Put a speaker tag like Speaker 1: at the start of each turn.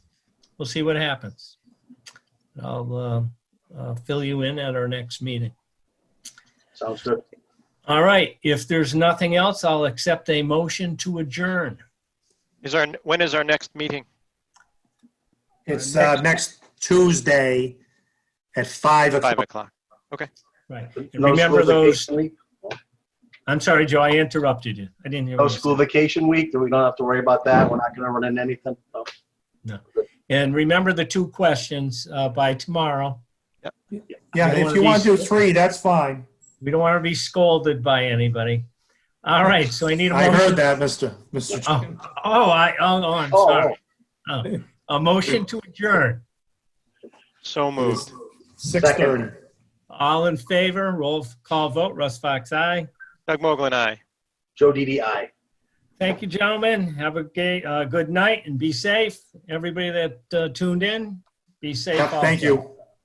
Speaker 1: we'll see what happens. I'll uh, uh, fill you in at our next meeting.
Speaker 2: Sounds good.
Speaker 1: All right, if there's nothing else, I'll accept a motion to adjourn.
Speaker 3: Is our, when is our next meeting?
Speaker 2: It's uh, next Tuesday at 5
Speaker 3: Five
Speaker 2: o'clock.
Speaker 3: o'clock.
Speaker 1: Right. And
Speaker 4: No
Speaker 1: remember
Speaker 4: school
Speaker 1: those,
Speaker 4: vacation week?
Speaker 1: I'm sorry, Joe, I interrupted you. I didn't hear.
Speaker 4: No
Speaker 1: what you said.
Speaker 4: Oh, school vacation week, we don't have to worry about that, we're not gonna run into anything. No.
Speaker 1: And remember the two questions uh, by tomorrow.
Speaker 2: Yeah, if you want to do three, that's fine.
Speaker 1: We don't want to be scolded by anybody. All right, so I need a
Speaker 2: I heard
Speaker 1: motion.
Speaker 2: that, Mr. Mr.
Speaker 1: Oh, oh, I, oh, oh, I'm
Speaker 4: Oh,
Speaker 1: sorry. Oh, A motion to adjourn.
Speaker 3: So moved.
Speaker 2: 6:30.
Speaker 1: All in favor, roll call vote, Russ Fox, aye.
Speaker 3: Doug Mogul and I.
Speaker 4: Joe DDI.
Speaker 1: Thank you, gentlemen. Have a gay, uh, good night and be safe. Everybody that uh, tuned in, be safe.
Speaker 2: Yep, Thank
Speaker 1: also.
Speaker 2: you.